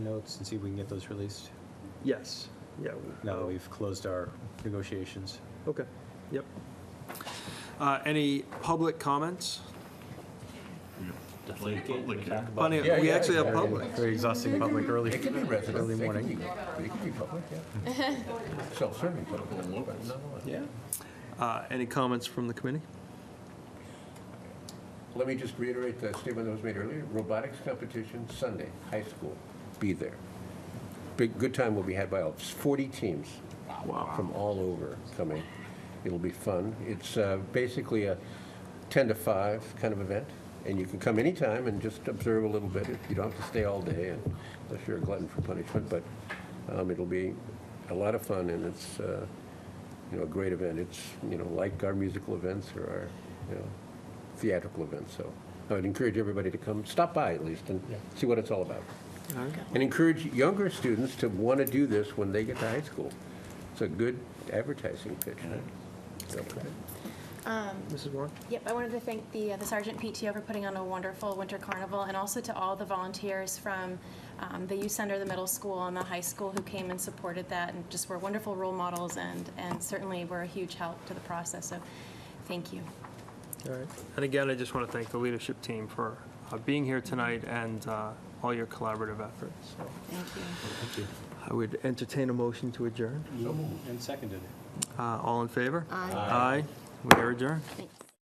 notes and see if we can get those released Yes, yeah. we- now that we've closed our negotiations. Okay, yep. Uh, Any public comments? Funny, Yeah, we yeah, actually have yeah. public. Very exhausting public early. It can be resident, Early it can morning. be, it can be public, yeah. Self-serving public, but nonetheless. Yeah. Uh, Any comments from the committee? Let me just reiterate the statement that was made earlier. Robotics competition Sunday, high school, be there. Big, good time will be had by all, 40 teams from all over coming. It'll be fun. It's uh, basically a 10 to 5 kind of event, and you can come anytime and just observe a little bit. You don't have to stay all day, and unless you're a glutton for punishment, but um, it'll be a lot of fun, and it's, uh, you know, a great event. It's, you know, like our musical events or our, you know, theatrical events, so I would encourage everybody to come, stop by at least, and see what it's all about. All right. And encourage younger students to want to do this when they get to high school. It's a good advertising pitch. So- Mrs. Warren? Yep, I wanted to thank the uh, the Sergeant PTO for putting on a wonderful winter carnival, and also to all the volunteers from um, the youth center, the middle school, and the high school who came and supported that, and just were wonderful role models, and, and certainly were a huge help to the process, so thank you. All right. And again, I just want to thank the leadership team for uh, being here tonight and uh, all your collaborative efforts. So Thank you. I would entertain a motion to adjourn. And seconded. Uh, All in favor? Aye. Aye. We are adjourned. Thanks.